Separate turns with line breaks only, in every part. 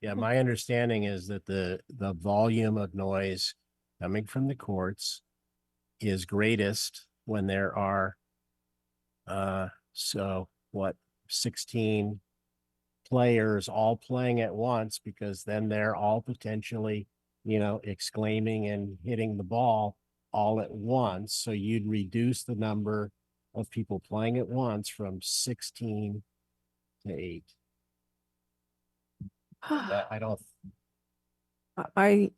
Yeah, my understanding is that the, the volume of noise coming from the courts is greatest when there are, uh, so what, sixteen players all playing at once because then they're all potentially, you know, exclaiming and hitting the ball all at once. So you'd reduce the number of people playing at once from sixteen to eight.
Ah,
That- I don't
I,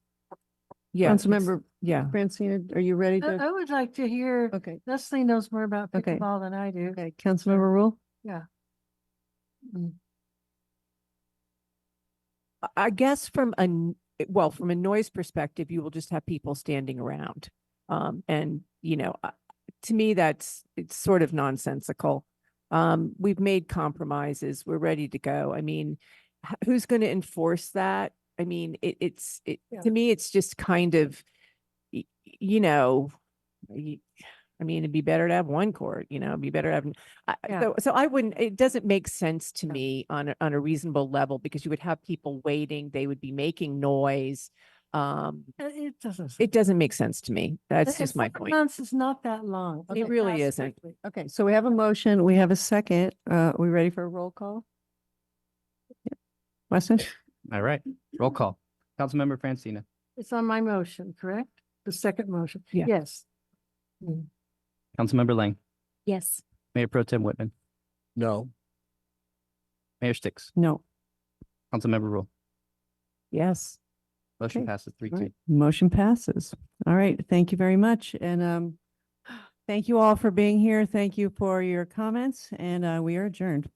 yeah. it's-
Councilmember
Yeah.
Francina, are you ready
I
to?
I would like to hear,
Okay,
Leslie knows more about
Okay.
pickleball than I do.
okay, Councilmember Rule?
I- I guess from a, n- well, from a noise perspective, you will just have people standing around. Um, and, you know, uh, to me, that's, it's sort of nonsensical. Um, we've made compromises. We're ready to go. I mean, h- who's going to enforce that? I mean, it, it's, it,
Yeah.
to me, it's just kind of, y- y- you know, y- I mean, it'd be better to have one court, you know, it'd be better to have, n- I- I-
Yeah.
so, so I wouldn't, it doesn't make sense to
No.
me on, a- on a reasonable level because you would have people waiting, they would be making noise. Um,
Uh, It doesn't.
it doesn't make sense to me. That's
Uh,
just
four
my point.
Months is not that long.
It really
Fast
isn't.
quickly.
Okay, so we have a motion, we have a second. Uh, are we ready for a roll call? Yep. Weston?
All right, roll call. Councilmember Francina,
It's on my motion, correct? The second motion.
Yeah.
Yes.
Councilmember Lang,
Yes.
Mayor Pro Tem Whitman,
know.
Mayor Sticks,
No.
Councilmember Rule.
Yes.
Motion
Okay.
passes three
All
two.
right, Motion passes. All right, thank you very much. And, um, thank you all for being here. Thank you for your comments and, uh, we are adjourned.